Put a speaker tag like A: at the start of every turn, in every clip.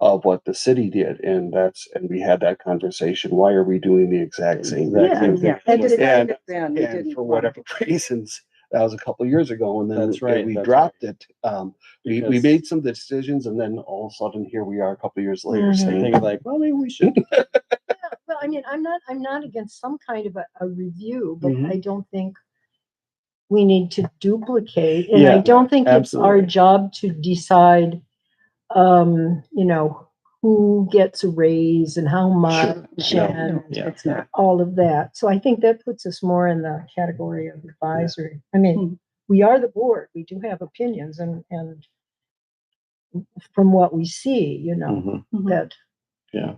A: of what the city did, and that's, and we had that conversation, why are we doing the exact same
B: Exact
A: thing?
B: same
C: Yeah, yeah.
A: And-
C: decided then we
A: And
C: didn't
A: for
C: want-
A: whatever reasons, that was a couple years ago, and then
B: That's right,
A: we
B: that's
A: dropped it. Um, we, we
B: Because-
A: made some decisions, and then all of a sudden, here we are a couple years later
C: Mhm.
A: saying,
B: Think like, well, maybe we should.
D: Well, I mean, I'm not, I'm not against some kind of a, a review, but
B: Mm-hmm.
A: Mhm.
D: I don't think we need to duplicate, and I
B: Yeah,
D: don't think it's our
B: absolutely.
D: job to decide, um, you know, who gets a raise and how much
B: No,
D: and
B: yeah.
C: It's not.
D: all of that. So I think that puts us more in the category of advisory. I
C: Mhm.
B: Hmm.
D: mean, we are the board, we do have opinions and, and from what we see, you know,
A: "Mm-hmm."
B: Mhm.
E: Mm-hmm.
D: that,
B: Yeah,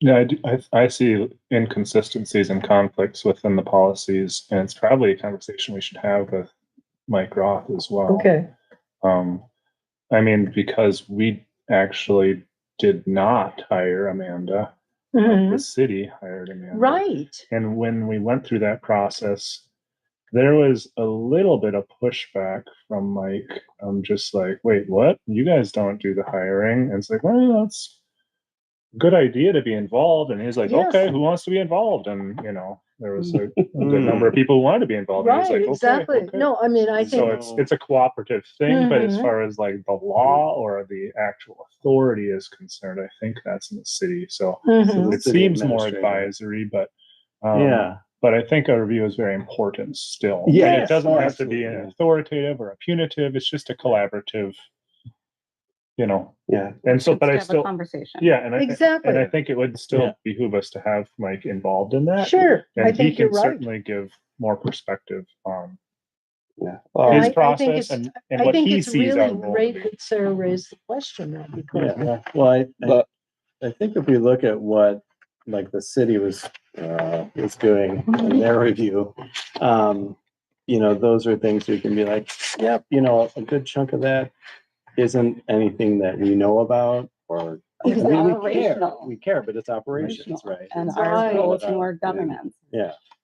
F: Yeah, I, do, I, I see inconsistencies and conflicts within the policies, and it's probably a conversation we should have with Mike Roth as well.
D: okay,
F: Um, I mean, because we actually did not hire Amanda, the
D: Mhm.
F: city hired Amanda.
D: right.
F: And when we went through that process, there was a little bit of pushback from Mike. I'm just like, wait, what? You guys don't do the hiring? And it's like, well, that's a good idea to be involved. And he's like,
D: Yes.
F: okay, who wants to be involved? And you know, there was a, a good
B: Mm-hmm.
F: number of people who wanted to be involved. and he was
D: Right,
F: like, okay,
D: exactly.
F: okay.
D: No, I mean, I
F: so
D: think,
F: it's it's a cooperative thing, but as
D: Mhm.
F: far as like the law or the actual authority is concerned, I think that's in the city. So
D: Mhm.
F: it
B: City
F: seems more
B: administrator.
F: advisory, but um,
B: yeah,
F: but I think a review is very important still.
B: Yeah,
F: And it doesn't
B: oh,
F: have to be an
B: absolutely.
F: authoritative or a punitive. It's just a collaborative, you know.
A: yeah.
F: And so, but I
C: Have a
F: still,
C: Conversation.
F: yeah, and I think, and I
D: exactly,
F: think it would still
B: Yeah.
F: behoove us to have Mike involved in that.
D: sure, I
F: And he
D: think you're
F: can
D: right.
F: certainly give more perspective on
A: Yeah.
D: And I-
F: his
D: I think
F: process
D: it's-
F: and, and
D: I
F: what
D: think
F: he
D: it's
F: sees
D: really
F: out of
D: great that Sarah raised the question now because
B: yeah. Well, I, I,
A: But-
B: I think if we look at what like the city was uh, was doing in their review, um, you know, those are things we can be like, yep, you know, a good chunk of that isn't anything that we know about or I mean, we care,
C: Operational.
B: we care, but it's operations, right?
C: And
B: It's
C: our
B: all
C: role is
B: about-
C: more governance.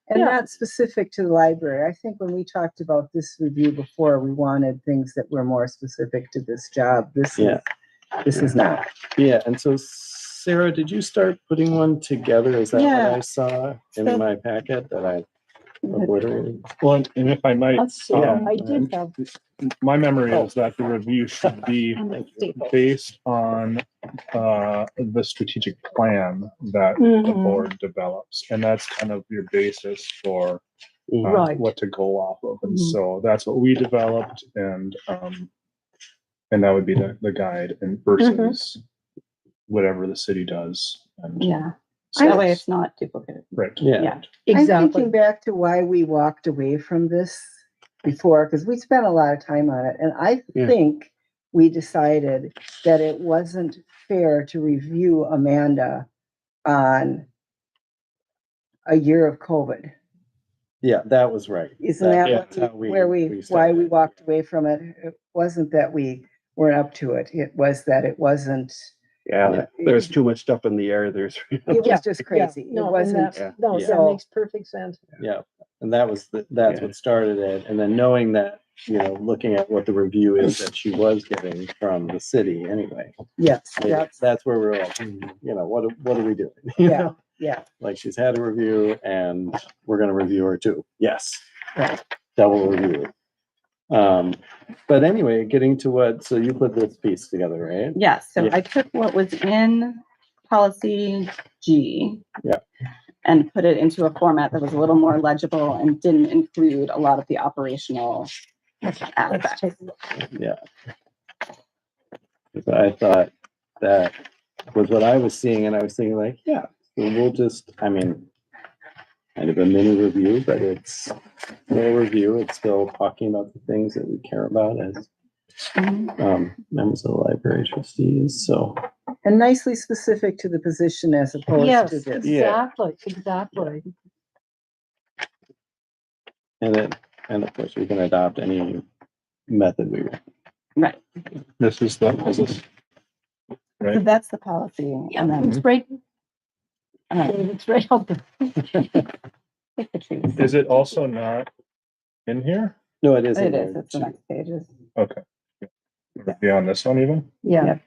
E: And
D: Yeah.
E: that's specific to the library. I think when we talked about this review before, we wanted things that were more specific to this job. This is,
B: Yeah.
E: this is not.
B: Yeah, and so Sarah, did you start putting one together? Is that
E: Yeah.
B: what I saw in my packet that I obliterated?
F: Well, and and if I might,
D: let's see,
F: Um,
D: I did have,
F: my memory
B: Oh.
F: is that the review should be
C: And it's stable.
F: based on uh, the strategic plan that the
D: Mhm.
F: board develops, and that's kind of your basis for uh,
D: Right.
F: what to go off of. And
C: Mhm.
F: so that's what we developed, and um, and that would be the, the guide and versus whatever the city does. And
C: Yeah.
F: so
C: That way
F: it's-
C: it's not duplicated.
F: right.
B: Yeah.
C: Yeah.
E: I'm
D: exactly,
E: thinking back to why we walked away from this before, because we spent a lot of time on it. And I
A: Yeah.
E: think we decided that it wasn't fair to review Amanda on a year of COVID.
B: Yeah, that was right.
E: Isn't
B: That-
E: that
B: yeah,
E: what
B: that's how we-
E: where
B: we
E: we, why
B: started.
E: we walked away from it, it wasn't that we weren't up to it, it was that it wasn't,
A: Yeah, there's too much stuff in the air. There's,
E: it
D: Yeah,
E: was just
D: yeah,
E: crazy. It
D: no, and
E: wasn't,
D: that, no,
B: Yeah.
D: that makes perfect sense.
B: And that was, the- that's
A: Yeah.
B: what started it. And then knowing that, you know, looking at what the review is that she was getting from the city anyway.
E: yes, yeah,
B: That's, that's where we were like, hmm, you know, what, what are we doing? You
E: yeah,
B: know,
E: yeah,
B: Like she's had a review and we're gonna review her too. Yes.
E: Right.
B: Double review. Um, but anyway, getting to what, so you put this piece together, right?
C: Yeah, so
B: Yeah.
C: I took what was in policy G.
B: Yeah.
C: And put it into a format that was a little more legible and didn't include a lot of the operational
D: Let's
C: aspects.
D: take-
B: Yeah. So I thought that was what I was seeing, and I was thinking like, yeah, so we'll just, I mean, kind of a mini review, but it's no review. It's still talking about the things that we care about as
C: Mhm.
B: um, members of the library trustees. So
E: and nicely specific to the position as opposed
D: Yes,
E: to this.
D: exactly, exactly,
B: and then and of course we can adopt any method we want.
C: Right,
F: This is the this is
C: so
F: Right.
C: that's the policy. And then,
D: it's right,
C: uh,
D: it's right out there.
C: pick the trees.
F: Is it also not in here?
B: No, it is. in
C: It
B: there.
C: is, it's the next pages.
F: Beyond this one even?
D: yeah,